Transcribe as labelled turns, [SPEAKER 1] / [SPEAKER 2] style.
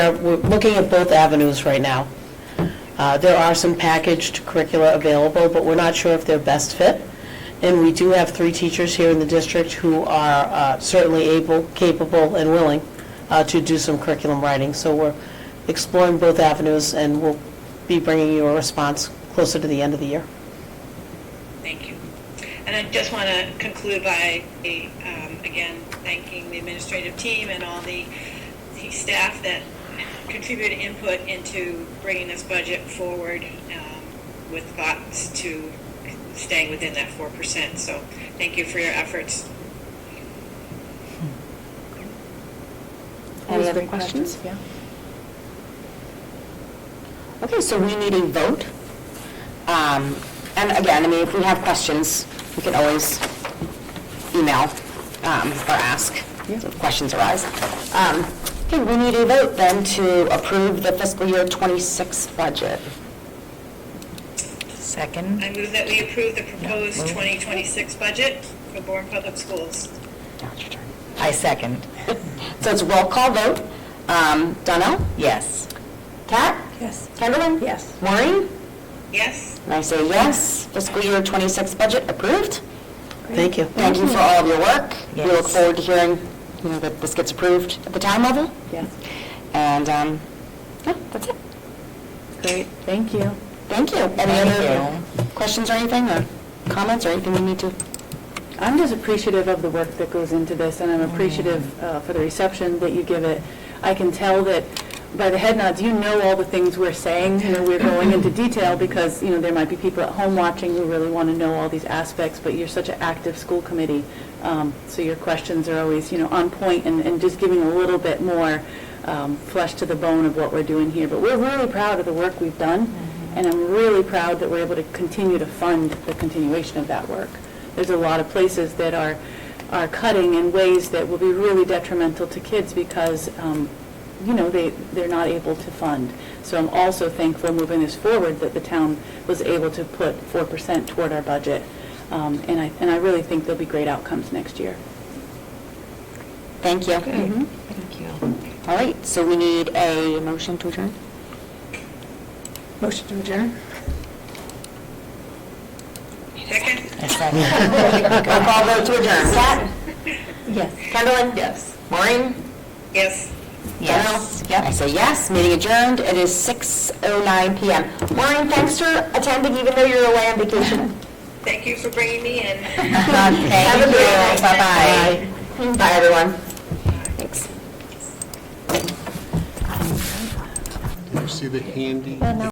[SPEAKER 1] Uh, We're looking at both avenues right now. Uh, There are some packaged curricula available, but we're not sure if they're best fit. And we do have three teachers here in the district who are uh, certainly able, capable, and willing uh, to do some curriculum writing. So we're exploring both avenues, and we'll be bringing you a response closer to the end of the year.
[SPEAKER 2] Thank you. And I just want to conclude by, um, again, thanking the administrative team and all the, the staff that contributed input into bringing this budget forward um, with thoughts to staying within that 4%. So thank you for your efforts.
[SPEAKER 3] Any other questions?
[SPEAKER 4] Yeah.
[SPEAKER 3] Okay, so we need a vote. Um, And again, I mean, if we have questions, we can always email um, or ask if questions arise. Um, Okay, we need a vote then to approve the fiscal year 26 budget.
[SPEAKER 4] Second.
[SPEAKER 2] I move that we approve the proposed 2026 budget for Bourne Public Schools.
[SPEAKER 3] Now it's your turn.
[SPEAKER 4] I second.
[SPEAKER 3] So it's roll call vote. Um, Donnell?
[SPEAKER 4] Yes.
[SPEAKER 3] Kat?
[SPEAKER 4] Yes.
[SPEAKER 3] Kendall?
[SPEAKER 4] Yes.
[SPEAKER 3] Maureen?
[SPEAKER 2] Yes?
[SPEAKER 3] And I say yes. Fiscal year 26 budget approved.
[SPEAKER 1] Thank you.
[SPEAKER 3] Thank you for all of your work. We look
[SPEAKER 4] Yes.
[SPEAKER 3] forward to hearing, you know, that this gets approved at the town level.
[SPEAKER 4] Yeah.
[SPEAKER 3] And, um, yeah, that's it.
[SPEAKER 4] Great, thank you.
[SPEAKER 3] Thank you. Any
[SPEAKER 4] Thank
[SPEAKER 3] other questions or anything, or comments or anything we need to?
[SPEAKER 5] I'm just appreciative of the work that goes into this, and I'm appreciative uh, for the reception that you give it. I can tell that by the head nods, you know all the things we're saying, you know, we're going into detail, because, you know, there might be people at home watching who really want to know all these aspects, but you're such an active school committee, um, so your questions are always, you know, on point, and and just giving a little bit more um, flesh to the bone of what we're doing here. But we're really proud of the work we've done, and I'm really proud that we're able to continue to fund the continuation of that work there's a lot of places that are, are cutting in ways that will be really detrimental to kids because, um, you know, they, they're not able to fund. So I'm also thankful moving this forward that the town was able to put 4% toward our budget. Um, And I, and I really think there'll be great outcomes next year.
[SPEAKER 3] Thank you. Mhm.
[SPEAKER 4] Thank you.
[SPEAKER 3] All right, so we need a motion to adjourn?
[SPEAKER 4] Motion to adjourn?
[SPEAKER 2] Second?
[SPEAKER 4] I second.
[SPEAKER 3] Roll call vote to adjourn. Kat?
[SPEAKER 4] Yes.
[SPEAKER 3] Kendall? Yes. Maureen?
[SPEAKER 2] Yes.
[SPEAKER 3] Yes. I say yes, meeting adjourned. It is 6:09 PM. Maureen, thanks for attending even though you're away on vacation.
[SPEAKER 2] Thank you for bringing me in.
[SPEAKER 3] Have a good night. Bye-bye. Bye, everyone. Thanks.
[SPEAKER 6] You see the handy